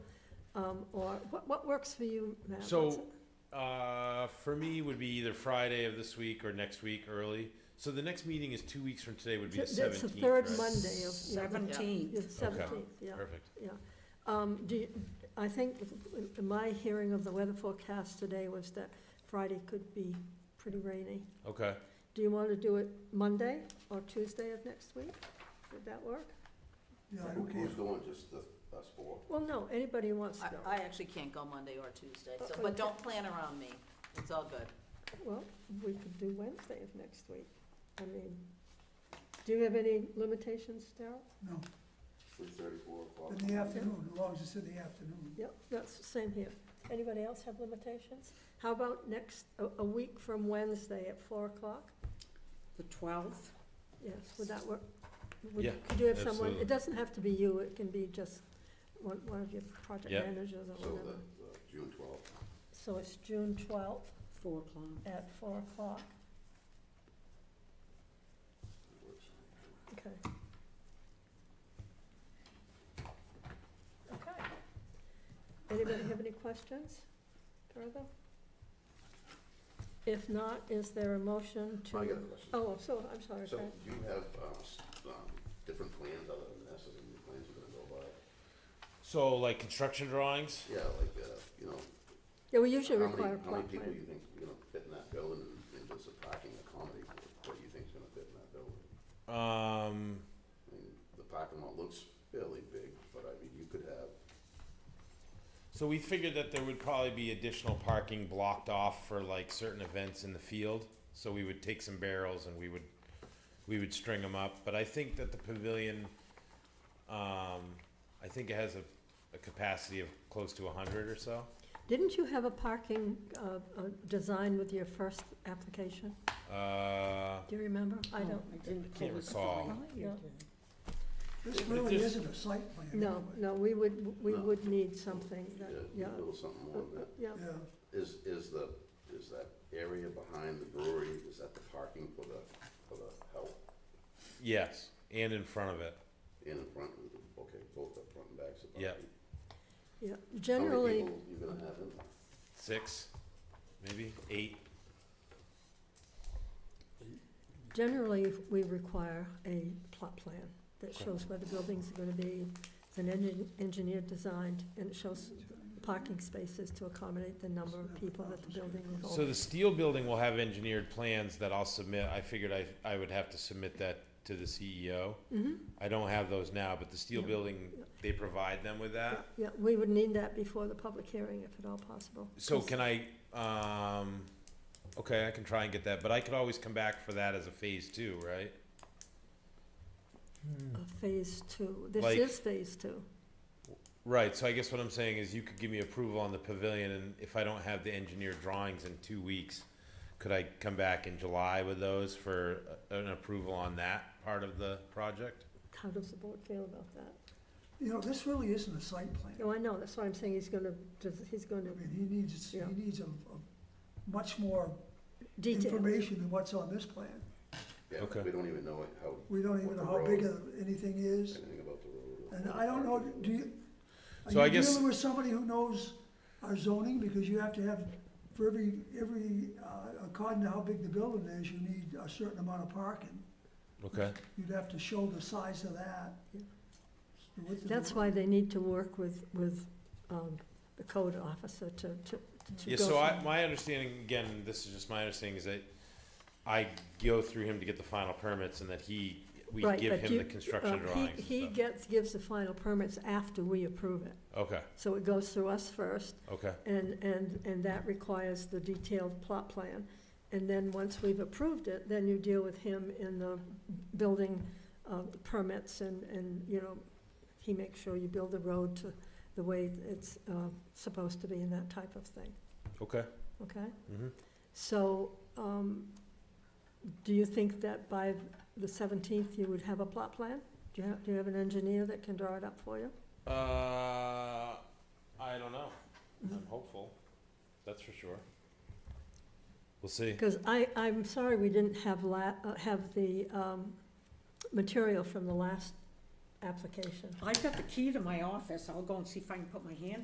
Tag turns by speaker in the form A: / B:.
A: Um, or what, what works for you, Matt? What's
B: So,
A: it-
B: uh, for me would be either Friday of this week or next week early. So the next meeting is two weeks from today would be the
A: Th- That's the
B: seventeenth,
A: third
B: right?
A: Monday of. yeah, the-
C: Seventeenth.
A: yeah, the Seventeenth, yeah,
B: Perfect.
A: yeah. Um, do you, I think in my hearing of the weather forecast today was that Friday could be pretty rainy.
B: Okay.
A: Do you want to do it Monday or Tuesday of next week? Would that work?
D: Yeah, I'm okay.
E: Who's going, just the, us four?
A: Well, no, anybody who wants to
C: I,
A: go.
C: I actually can't go Monday or Tuesday, so, but don't plan around me. It's all good.
A: Well, we could do Wednesday of next week. I mean, do you have any limitations, Darrell?
D: No,
E: Three thirty, four o'clock?
D: in the afternoon, as long as it's in the afternoon.
A: Yep, that's the same here. Anybody else have limitations? How about next, a, a week from Wednesday at four o'clock?
F: The 12th?
A: Yes, would that work? Would-
B: Yeah,
A: Could you have someone,
B: absolutely.
A: it doesn't have to be you, it can be just one, one of your project
B: Yeah.
A: managers or
E: So
A: whatever.
E: the, the June twelfth,
A: So it's June twelfth
F: 4 o'clock.
A: at four o'clock,
E: works.
A: okay. Okay. Anybody have any questions further? If not, is there a motion to?
E: I got a question.
A: Oh, so, I'm sorry,
E: So
A: Fran.
E: do you have, um, s- um, different plans other than this, and the plans we're gonna go by?
B: So like construction drawings?
E: Yeah, like, uh, you know,
A: Yeah, we usually
E: how many,
A: require a
E: how many
A: plot
E: people you
A: plan.
E: think, you know, fit in that building, and- and does the parking accommodate what- what you think's gonna fit in that building?
B: Um,
E: I mean, the parking lot looks fairly big, but I mean, you could have,
B: so we figured that there would probably be additional parking blocked off for like certain events in the field. So we would take some barrels and we would, we would string them up. But I think that the pavilion, um, I think it has a, a capacity of close to a hundred or so.
A: Didn't you have a parking uh, uh, design with your first application?
B: Uh,
A: Do you remember? I
F: I
A: don't,
F: didn't
B: Can't
F: pull this
B: recall.
F: file.
A: Yeah.
F: You did.
D: This really
B: This-
D: isn't a site plan.
A: no,
D: anyway.
A: no, we would, we
E: No.
A: would need something
E: uh,
A: that,
E: you
A: yeah.
E: could build something more than that.
A: Yeah,
D: Yeah,
E: Is, is the, is that area behind the brewery, is that the parking for the, for the help
B: yes, and in front of it.
E: in and front? of the- Okay, both the front and backs of the
B: Yeah.
E: parking.
A: yeah.
E: How
A: Generally,
E: many people you gonna have in there?
B: six, maybe eight.
A: generally, we require a plot plan that shows where the buildings are going to be. It's an engi- engineered design, and it shows parking spaces to accommodate the number of people that the building will
B: So
A: hold.
B: the steel building will have engineered plans that I'll submit. I figured I, I would have to submit that to the CEO.
A: Mm-hmm.
B: I don't have those now, but the steel building, they provide them with that.
A: Yeah, we would need that before the public hearing, if at all possible.
B: So can I, um, okay, I can try and get that, but I could always come back for that as a phase two, right?
A: of phase two. This
B: Like-
A: is phase two.
B: Right, so I guess what I'm saying is you could give me approval on the pavilion and if I don't have the engineered drawings in two weeks, could I come back in July with those for uh, an approval on that part of the project?
A: How does the board feel about that?
D: you know, this really isn't a site plan.
A: No, I know, that's why I'm saying he's gonna, just- he's
D: I
A: gonna
D: mean, he needs, he
A: Yeah.
D: needs a, a much more
A: detail.
D: information than what's on this plan.
E: Yeah,
B: Okay.
E: we don't even know it- how.
D: We don't
E: what
D: even
E: the
D: know how big
E: road-
D: of anything is,
E: Anything about the road. or
D: and
E: the
D: I don't know,
E: parking.
D: do you,
B: So
D: are
B: I
D: you
B: guess-
D: dealing with somebody who knows our zoning? Because you have to have, for every, every, uh, according to how big the building is, you need a certain amount of parking.
B: Okay.
D: You'd have to show the size of that.
A: Yeah.
D: the width of the
A: That's why they need to work with, with, um, the code officer to, to, to
B: Yeah,
A: go
B: so I,
A: through.
B: my understanding, again, this is just my understanding, is that I go through him to get the final permits and that he, we
A: Right,
B: give
A: but
B: him
A: you-
B: the construction
A: uh, he-
B: drawings and
A: He
B: stuff.
A: gets, gives the final permits after we approve it.
B: Okay,
A: So it goes through us first,
B: okay,
A: and, and, and that requires the detailed plot plan. And then, once we've approved it, then you deal with him in the building uh, permits and, and, you know, he makes sure you build the road to the way it's uh, supposed to be and that type of thing,
B: okay.
A: okay?
B: Mhm.
A: So, um, do you think that by the 17th you would have a plot plan? Do you have, do you have an engineer that can draw it up for you?
B: Uh, I don't know. I'm hopeful, that's for sure. We'll see.
A: Because I, I'm sorry we didn't have la, uh, have the, um, material from the last application.
F: I've got the key to my office. I'll go and see if I can put my hand